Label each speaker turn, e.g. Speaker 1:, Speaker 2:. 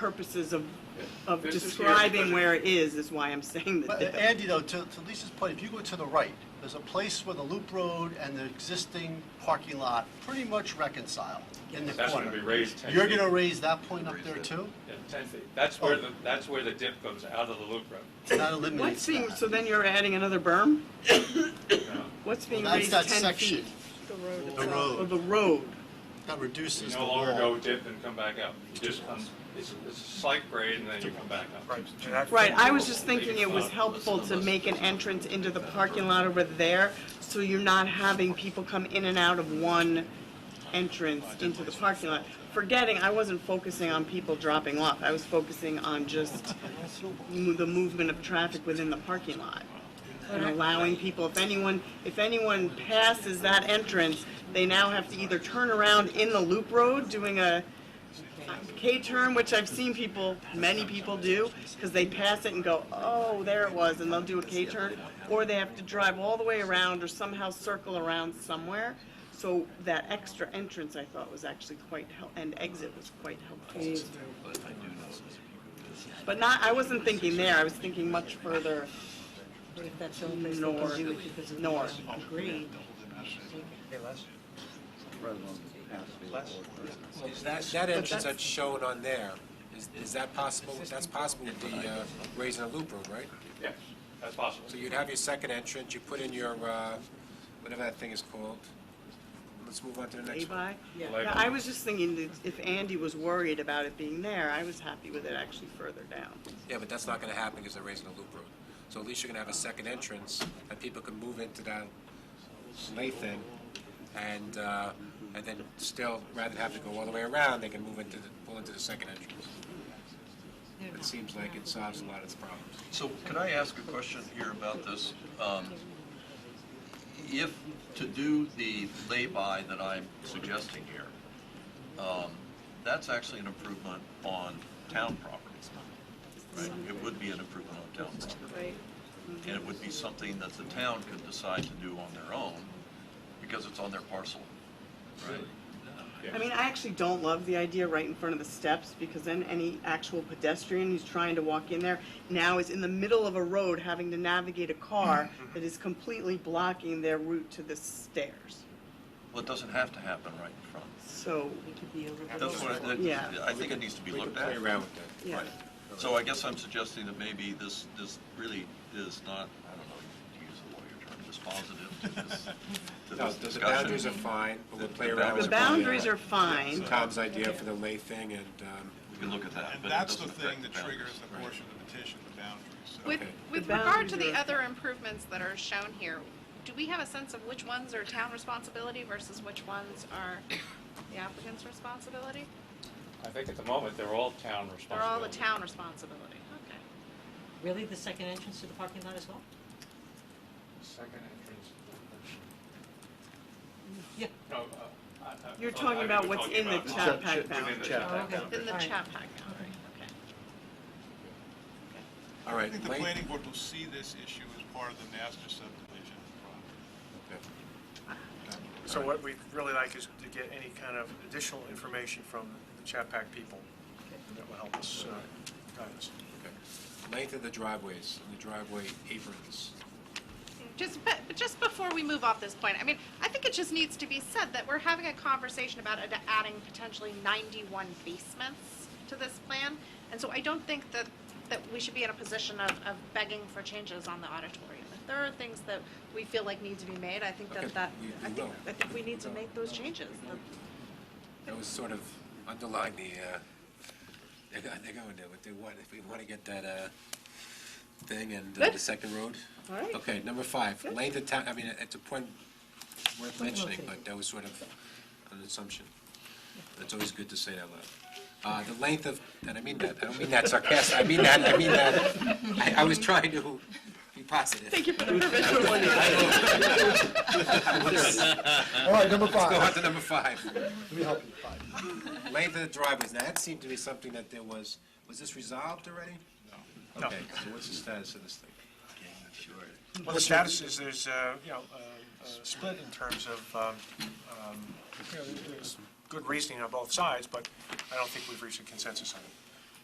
Speaker 1: purposes of, of
Speaker 2: This is here,
Speaker 1: describing
Speaker 2: but-
Speaker 1: where it is, is why I'm saying
Speaker 3: But,
Speaker 1: that.
Speaker 3: uh, Andy, though, to to Lisa's point, if you go to the right, there's a place where the loop road and the existing parking lot pretty much reconcile in the
Speaker 2: That's gonna
Speaker 3: corner.
Speaker 2: be raised ten feet.
Speaker 3: You're gonna raise that point up there too?
Speaker 2: Yeah, ten feet. That's where
Speaker 3: Oh.
Speaker 2: the, that's where the dip goes out of the loop road.
Speaker 3: That
Speaker 1: What's
Speaker 3: eliminates
Speaker 1: being, so
Speaker 3: that.
Speaker 1: then you're adding another berm?
Speaker 2: you know.
Speaker 1: What's being
Speaker 3: Well, that's
Speaker 1: raised
Speaker 3: that
Speaker 1: ten
Speaker 3: section.
Speaker 1: feet?
Speaker 3: The
Speaker 1: Of
Speaker 3: road,
Speaker 1: the road,
Speaker 3: that
Speaker 2: You
Speaker 3: reduces the
Speaker 2: no longer go
Speaker 3: wall.
Speaker 2: dip and come back up. You just come, it's, it's a slight grade and then you come back up.
Speaker 1: right, I was just thinking it was helpful to make an entrance into the parking lot over there, so you're not having people come in and out of one entrance into the parking lot. Forgetting, I wasn't focusing on people dropping off, I was focusing on just mo- the movement of traffic within the parking lot. And allowing people, if anyone, if anyone passes that entrance, they now have to either turn around in the loop road, doing a K-turn, which I've seen people, many people do, because they pass it and go, oh, there it was, and they'll do a K-turn. Or they have to drive all the way around or somehow circle around somewhere. So that extra entrance, I thought, was actually quite, hel- and exit was quite helpful. But not, I wasn't thinking there, I was thinking much further.
Speaker 4: But if that's the only place they
Speaker 1: Nor-
Speaker 4: can do it because of
Speaker 1: nor.
Speaker 4: the agreed,
Speaker 5: That, that entrance that's shown on there, is, is that possible, that's possible with the, uh, raising a loop road, right?
Speaker 2: Yes, that's possible.
Speaker 5: So you'd have your second entrance, you put in your, uh, whatever that thing is called. Let's move on to the next one.
Speaker 1: Levi?
Speaker 4: Yeah.
Speaker 1: Yeah, I was just thinking that if Andy was worried about it being there, I was happy with it actually further down.
Speaker 5: Yeah, but that's not gonna happen because they're raising a loop road. So at least you're gonna have a second entrance, and people can move into that Lathan, and, uh, and then still, rather than have to go all the way around, they can move into, the pull into the second entrance. It seems like it solves a lot of its problems.
Speaker 6: So can I ask a question here about this? Um, If, to do the lay-by that I'm suggesting here, um, that's actually an improvement on town property, right? It would be an improvement on town property.
Speaker 1: Right.
Speaker 6: And it would be something that the town could decide to do on their own because it's on their parcel, right?
Speaker 1: I mean, I actually don't love the idea right in front of the steps, because then any actual pedestrian who's trying to walk in there now is in the middle of a road having to navigate a car that is completely blocking their route to the stairs.
Speaker 6: Well, it doesn't have to happen right in front.
Speaker 1: So,
Speaker 4: it could be over.
Speaker 6: That's what, I-
Speaker 1: Yeah.
Speaker 6: that- I think it needs to be
Speaker 5: We
Speaker 6: looked
Speaker 5: can
Speaker 6: at.
Speaker 5: Play around with that.
Speaker 1: yeah.
Speaker 6: Right. So I guess I'm suggesting that maybe this, this really is not, I don't know, to use the lawyer term, dispositive to this, to
Speaker 5: No,
Speaker 6: this
Speaker 5: the
Speaker 6: discussion.
Speaker 5: boundaries are fine, but we'll play around
Speaker 1: The
Speaker 5: with
Speaker 6: That's
Speaker 5: it.
Speaker 1: boundaries are fine.
Speaker 5: Tom's idea for the lay thing, and, um,
Speaker 6: We can look at that,
Speaker 7: And
Speaker 6: but it
Speaker 7: that's the
Speaker 6: doesn't affect
Speaker 7: thing that
Speaker 6: boundaries.
Speaker 7: triggers the portion of the petition, the boundaries. So-
Speaker 8: With,
Speaker 5: Okay.
Speaker 8: with
Speaker 1: The
Speaker 8: regard to
Speaker 1: boundaries
Speaker 8: the
Speaker 1: are-
Speaker 8: other improvements that are shown here, do we have a sense of which ones are town responsibility versus which ones are the applicant's responsibility?
Speaker 2: I think at the moment, they're all town responsibility.
Speaker 8: They're all the town responsibility, okay.
Speaker 4: Really, the second entrance to the parking lot as well?
Speaker 2: Second entrance.
Speaker 4: Yeah.
Speaker 2: No, uh, I- I-
Speaker 1: You're
Speaker 2: I-
Speaker 1: talking
Speaker 2: I-
Speaker 1: about
Speaker 2: we're
Speaker 1: what's
Speaker 2: talking
Speaker 1: in the
Speaker 2: about
Speaker 1: chat pack
Speaker 2: Within the
Speaker 1: boundary.
Speaker 2: chat pack
Speaker 4: Okay.
Speaker 2: boundary.
Speaker 8: In the
Speaker 4: Alright.
Speaker 8: chat pack boundary, okay.
Speaker 5: all
Speaker 7: I
Speaker 5: right.
Speaker 7: think the
Speaker 5: lay-
Speaker 7: planning board will see this issue as part of the master subdivision process.
Speaker 5: okay.
Speaker 9: So what we'd really like is to get any kind of additional information from the Chapac people that will help us uh, guide us.
Speaker 5: Okay. Length of the driveways, and the driveway aprons.
Speaker 8: Just, but, but just before we move off this point, I mean, I think it just needs to be said that we're having a conversation about ad- adding potentially 91 basements to this plan. And so I don't think that, that we should be in a position of, of begging for changes on the auditorium. If there are things that we feel like need to be made, I think
Speaker 5: Okay,
Speaker 8: that that,
Speaker 5: we- we
Speaker 8: I think,
Speaker 5: will.
Speaker 8: I think we need to make those changes.
Speaker 5: That was sort of underlying the, uh, they're going, they're going to, if they want, if we want to get that, uh, thing and uh, the
Speaker 1: Good.
Speaker 5: second road.
Speaker 1: All right.
Speaker 5: Okay, number five,
Speaker 1: Good.
Speaker 5: length of town, I mean, it's a point worth
Speaker 4: Point well
Speaker 5: mentioning, but
Speaker 4: taken.
Speaker 5: that was sort of an assumption. It's always good to say that loud. Uh, the length of, and I mean that, I don't mean that sarcastic, I mean that, I mean that, I, I was trying to be positive.
Speaker 1: Thank you for the provisional one.
Speaker 3: All right, number
Speaker 5: Let's go
Speaker 3: five.
Speaker 5: on to number five.
Speaker 3: Let me help you, five.
Speaker 5: Length of the driveways, now that seemed to be something that there was, was this resolved already? No. Okay, so what's the status of this thing?
Speaker 9: Well, the status is there's, uh, you know, a- a split in terms of, um, um, you know, there's good reasoning on both sides, but I don't think we've reached a consensus on it.